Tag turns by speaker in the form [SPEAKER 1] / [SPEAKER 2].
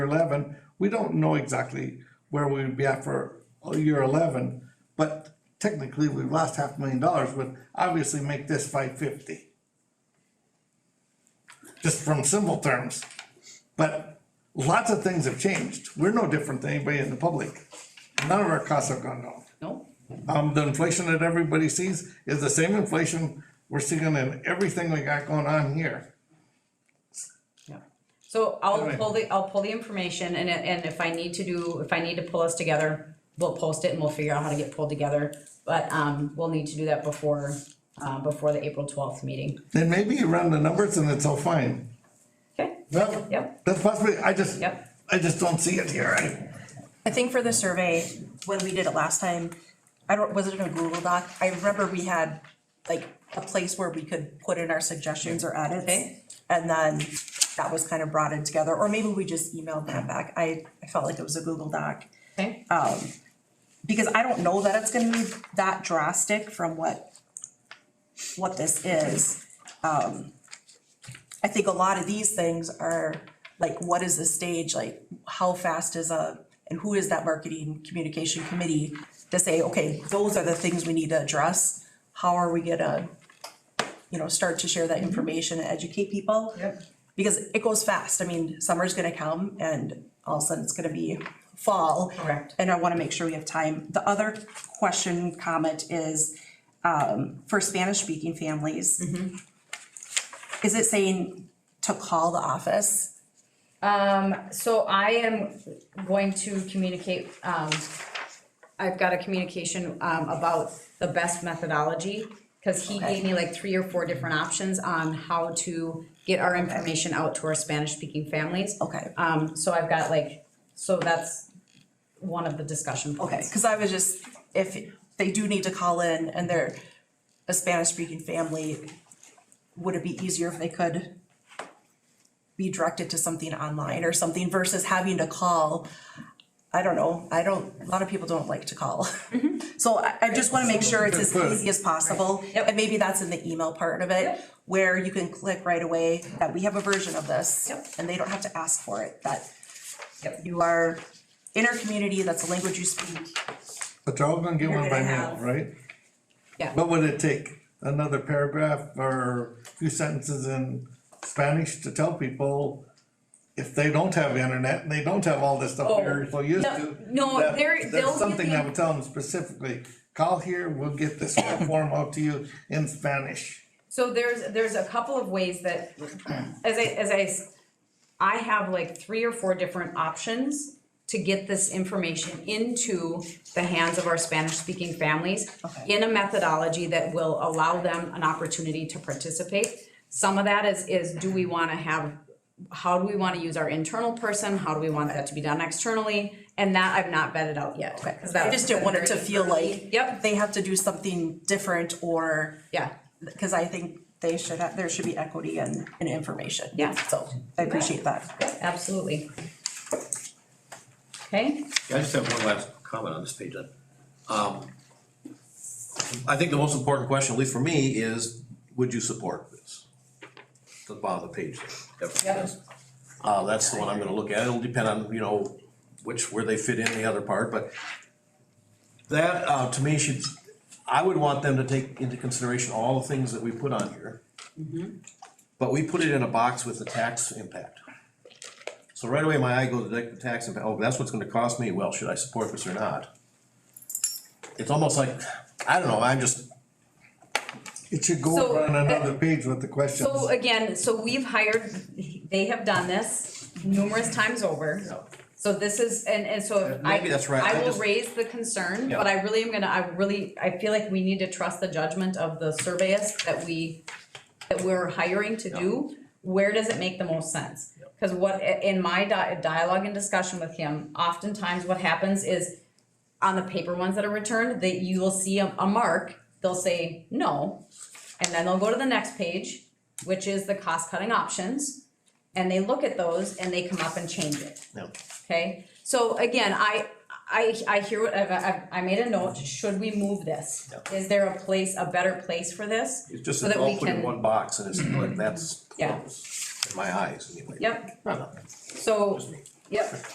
[SPEAKER 1] eleven, we don't know exactly where we would be at for year eleven. But technically, we've lost half a million dollars, would obviously make this five fifty. Just from simple terms, but lots of things have changed, we're no different than anybody in the public. None of our costs have gone down.
[SPEAKER 2] No,
[SPEAKER 1] Um, the inflation that everybody sees is the same inflation we're seeing in everything we got going on here.
[SPEAKER 2] yeah. So I'll
[SPEAKER 1] Anyway.
[SPEAKER 2] pull the, I'll pull the information and, it- and if I need to do, if I need to pull us together, we'll post it and we'll figure out how to get pulled together. But, um, we'll need to do that before, uh, before the April twelfth meeting.
[SPEAKER 1] Then maybe you run the numbers and it's all fine.
[SPEAKER 2] Okay,
[SPEAKER 1] Well,
[SPEAKER 2] Yep.
[SPEAKER 1] that's possibly, I just,
[SPEAKER 2] Yep.
[SPEAKER 1] I just don't see it here. I-
[SPEAKER 3] I think for the survey, when we did it last time, I don't, was it in a Google Doc? I remember we had like a place where we could put in our suggestions or edits.
[SPEAKER 2] Okay.
[SPEAKER 3] And then that was kind of brought in together, or maybe we just emailed that back. I, I felt like it was a Google Doc.
[SPEAKER 2] okay,
[SPEAKER 3] Because I don't know that it's gonna be that drastic from what, what this is. Um, I think a lot of these things are, like, what is the stage, like, how fast is a, and who is that marketing communication committee to say, okay, those are the things we need to address, how are we gonna, you know, start to share that information and educate people?
[SPEAKER 2] Yep.
[SPEAKER 3] Because it goes fast, I mean, summer's gonna come and all of a sudden it's gonna be fall.
[SPEAKER 2] Correct.
[SPEAKER 3] And I wanna make sure we have time. The other question, comment is, um, for Spanish-speaking families. Is it saying to call the office?
[SPEAKER 2] so I am going to communicate, um, I've got a communication, um, about the best methodology. Cause he gave me like three or four different options on how to get our information out to our Spanish-speaking families.
[SPEAKER 3] Okay,
[SPEAKER 2] Um, so I've got like, so that's one of the discussion
[SPEAKER 3] okay,
[SPEAKER 2] points.
[SPEAKER 3] cause I was just, if they do need to call in and they're a Spanish-speaking family, would it be easier if they could be directed to something online or something versus having to call? I don't know, I don't, a lot of people don't like to call.
[SPEAKER 2] Mm-hmm.
[SPEAKER 3] So I, I just wanna make sure it's as
[SPEAKER 1] Good.
[SPEAKER 3] easy as possible, and maybe that's in the email part of it,
[SPEAKER 2] Yep.
[SPEAKER 3] where you can click right away that we have a version of this.
[SPEAKER 2] Yep.
[SPEAKER 3] And they don't have to ask for it, that
[SPEAKER 2] Yep.
[SPEAKER 3] you are in our community, that's the language you speak.
[SPEAKER 1] But they're all gonna get
[SPEAKER 2] You're
[SPEAKER 1] one by
[SPEAKER 2] gonna
[SPEAKER 1] mail,
[SPEAKER 2] have-
[SPEAKER 1] right?
[SPEAKER 2] Yeah.
[SPEAKER 1] What would it take? Another paragraph or a few sentences in Spanish to tell people if they don't have internet and they don't have all this stuff
[SPEAKER 2] Oh,
[SPEAKER 1] they're so used
[SPEAKER 2] no-
[SPEAKER 1] to?
[SPEAKER 2] no,
[SPEAKER 1] that-
[SPEAKER 2] they're- they'll
[SPEAKER 1] That's
[SPEAKER 2] give
[SPEAKER 1] something
[SPEAKER 2] you-
[SPEAKER 1] that would tell them specifically, call here, we'll get this whole form out to you in Spanish.
[SPEAKER 2] So there's, there's a couple of ways that, as I, as I, s- I have like three or four different options to get this information into the hands of our Spanish-speaking families
[SPEAKER 3] Okay.
[SPEAKER 2] in a methodology that will allow them an opportunity to participate. Some of that is, is do we wanna have, how do we wanna use our internal person? How do we want that to be done externally? And that I've not vetted out yet. 'cause that
[SPEAKER 3] I just didn't want it to feel like
[SPEAKER 2] Yep.
[SPEAKER 3] they have to do something different or,
[SPEAKER 2] Yeah,
[SPEAKER 3] cause I think they should have, there should be equity and, and information.
[SPEAKER 2] Yeah.
[SPEAKER 3] So I appreciate that.
[SPEAKER 2] absolutely. Okay?
[SPEAKER 4] I just have one last comment on this page then. Um, I think the most important question, at least for me, is would you support this? The bottom of the page. there.
[SPEAKER 2] Yep.
[SPEAKER 4] Uh, that's the one I'm gonna look at. It'll depend on, you know, which, where they fit in the other part, but that, uh, to me should, I would want them to take into consideration all the things that we put on here. But we put it in a box with the tax impact. So right away, my eye goes to the tax impact, oh, that's what's gonna cost me, well, should I support this or not? It's almost like, I don't know, I'm just,
[SPEAKER 1] It should go
[SPEAKER 2] So,
[SPEAKER 1] over on
[SPEAKER 2] uh,
[SPEAKER 1] another page with the questions.
[SPEAKER 2] So again, so we've hired, they have done this numerous times
[SPEAKER 4] you
[SPEAKER 2] over.
[SPEAKER 4] know,
[SPEAKER 2] So this is, and, and so if I,
[SPEAKER 4] Maybe that's right,
[SPEAKER 2] I
[SPEAKER 4] I
[SPEAKER 2] will
[SPEAKER 4] just-
[SPEAKER 2] raise the concern,
[SPEAKER 4] Yeah.
[SPEAKER 2] but I really am gonna, I really, I feel like we need to trust the judgment of the surveyist that we, that we're hiring to do. Where does it make the most sense? Cause what, in my di- dialogue and discussion with him, oftentimes what happens is on the paper ones that are returned, that you will see a, a mark, they'll say no. And then they'll go to the next page, which is the cost cutting options. And they look at those and they come up and change it,
[SPEAKER 4] you know,
[SPEAKER 2] okay? So again, I, I, I hear what, I've, I've, I made a note, should we move this?
[SPEAKER 4] Yeah.
[SPEAKER 2] Is there a place, a better place for this?
[SPEAKER 4] it's just,
[SPEAKER 2] So
[SPEAKER 4] it's
[SPEAKER 2] that we
[SPEAKER 4] all put in
[SPEAKER 2] can-
[SPEAKER 4] one box and it's like, that's
[SPEAKER 2] Yeah.
[SPEAKER 4] close, in my eyes anyway.
[SPEAKER 2] Yep,
[SPEAKER 4] I don't know.
[SPEAKER 2] so,
[SPEAKER 4] me.
[SPEAKER 2] Yep.